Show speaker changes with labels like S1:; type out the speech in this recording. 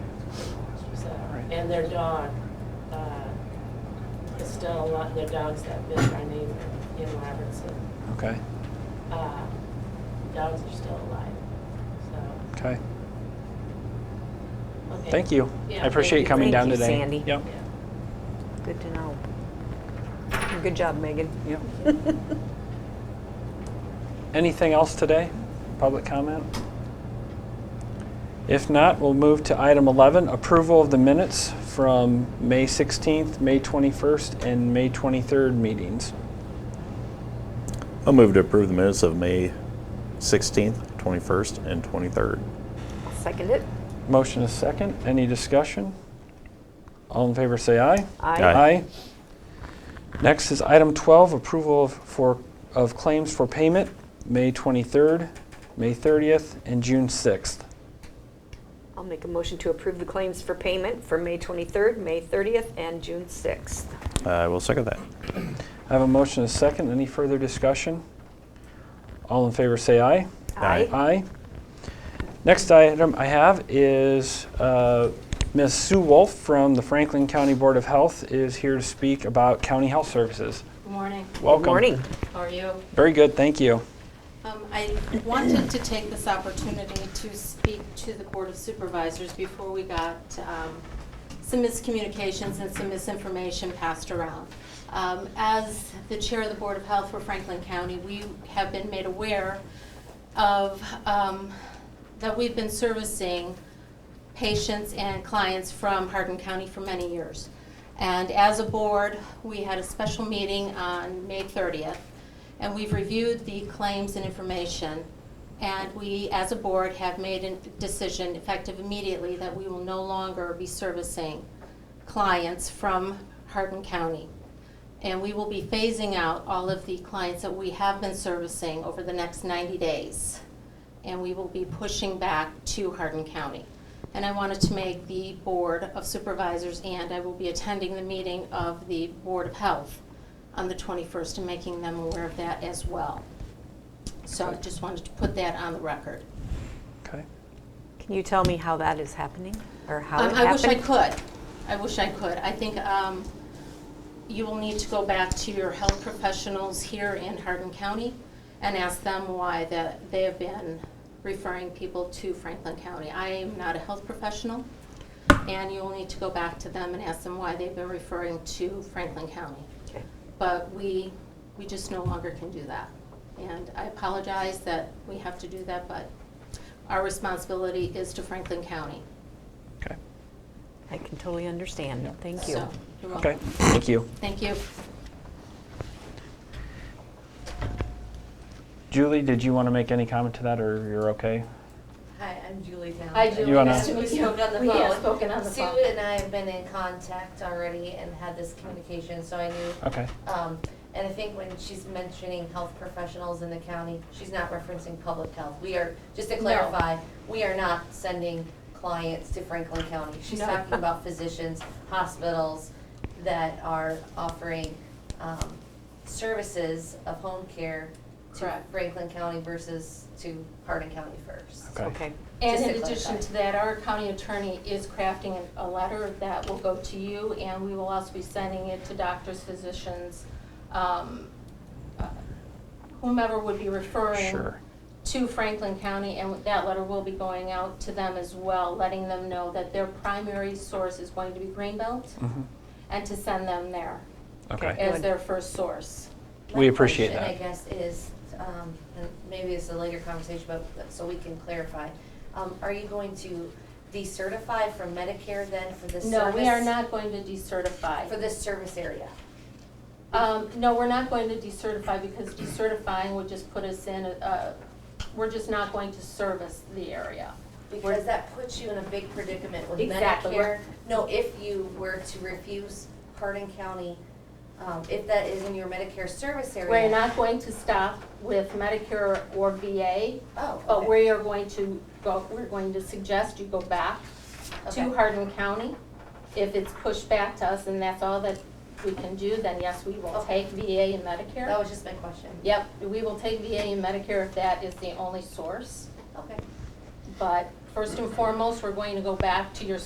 S1: and their dog, uh, Estelle, a lot, their dogs that bit our neighbor in Robertson.
S2: Okay,
S1: Uh, Dogs are still alive, so,
S2: okay.
S1: okay.
S2: Thank you.
S1: Yeah,
S2: I appreciate
S1: thank
S2: you
S1: you.
S2: coming down
S3: Thank you,
S2: today.
S3: Sandy.
S2: Yep.
S1: Yeah.
S3: Good to know. Good job, Megan.
S2: Yep. Anything else today? Public comment? If not, we'll move to item 11, approval of the minutes from May 16th, May 21st, and May 23rd meetings.
S4: I'll move to approve the minutes of May 16th, 21st, and 23rd.
S3: I'll second it.
S2: Motion is second. Any discussion? All in favor say aye.
S4: Aye.
S2: Next is item 12, approval of, for, of claims for payment, May 23rd, May 30th, and June 6th.
S3: I'll make a motion to approve the claims for payment for May 23rd, May 30th, and June 6th.
S4: I will second that.
S2: I have a motion and a second. Any further discussion? All in favor say aye.
S4: Aye.
S2: Aye. Next item I have is uh, Ms. Sue Wolf from the Franklin County Board of Health is here to speak about county health services.
S5: Good morning.
S2: Welcome.
S3: Good morning.
S5: How are you?
S2: Very good, thank you.
S5: Um, I wanted to take this opportunity to speak to the Board of Supervisors before we got um, some miscommunications and some misinformation passed around. Um, As the Chair of the Board of Health for Franklin County, we have been made aware of, um, that we've been servicing patients and clients from Hardin County for many years. And as a board, we had a special meeting on May 30th, and we've reviewed the claims and information. And we, as a board, have made a decision effective immediately that we will no longer be servicing clients from Hardin County. And we will be phasing out all of the clients that we have been servicing over the next 90 days and we will be pushing back to Hardin County. And I wanted to make the Board of Supervisors, and I will be attending the meeting of the Board of Health on the 21st and making them aware of that as well. So I just wanted to put that on the record.
S2: Okay.
S3: Can you tell me how that is happening, or how it
S5: Um,
S3: happened?
S5: I wish I could. I wish I could. I think um, you will need to go back to your health professionals here in Hardin County and ask them why that they have been referring people to Franklin County. I am not a health professional, and you will need to go back to them and ask them why they've been referring to Franklin County.
S3: Okay.
S5: But we, we just no longer can do that. And I apologize that we have to do that, but our responsibility is to Franklin County.
S2: Okay.
S3: I can totally understand. Thank you.
S5: So, you're
S2: Okay,
S5: welcome.
S2: thank you.
S5: Thank you.
S2: Julie, did you want to make any comment to that, or you're okay?
S6: Hi, I'm Julie Down.
S7: Hi, Julie.
S2: You wanna-
S7: Nice to meet you.
S6: We spoke on the
S7: We have
S6: phone.
S7: spoken on the phone.
S6: Sue and I have been in contact already and had this communication, so I knew.
S2: Okay,
S6: Um, and I think when she's mentioning health professionals in the county, she's not referencing public health. We are, just to
S5: No.
S6: clarify, we are not sending clients to Franklin County. She's
S5: No.
S6: talking about physicians, hospitals that are offering, um, services of home care to
S5: Correct.
S6: Franklin County versus to Hardin County first.
S2: Okay.
S3: Okay.
S5: And
S6: Just to
S5: in addition
S6: clarify.
S5: to that, our county attorney is crafting a- a letter that will go to you, and we will also be sending it to doctors, physicians, um, uh, whomever would be referring
S2: sure.
S5: to Franklin County, and that letter will be going out to them as well, letting them know that their primary source is going to be Greenbelt,
S6: Mm-hmm.
S2: Mhm.
S5: and to send them there
S2: Okay,
S5: as
S3: Good.
S5: their first source.
S2: We appreciate
S6: My
S2: that.
S6: question, I guess, is, um, and maybe it's a later conversation, but, so we can clarify. Um, are you going to decertify from Medicare then for this
S5: No,
S6: service?
S5: we are not going to decertify.
S6: For this service area?
S5: Um, no, we're not going to decertify because decertifying would just put us in, uh, we're just not going to service the area.
S6: Because that puts you in a big predicament with
S5: Exactly.
S6: Medicare. No, if you were to refuse Hardin County, um, if that is in your Medicare service area.
S5: We're not going to stop with Medicare or VA,
S6: Oh,
S5: but
S6: okay.
S5: we are going to go, we're going to suggest you go back
S6: Okay.
S5: to Hardin County. If it's pushed back to us and that's all that we can do, then yes, we will
S6: Okay.
S5: take VA and Medicare.
S6: That was just my question.
S5: Yep, we will take VA and Medicare if that is the only source.
S6: Okay.
S5: But first and foremost, we're going to go back to your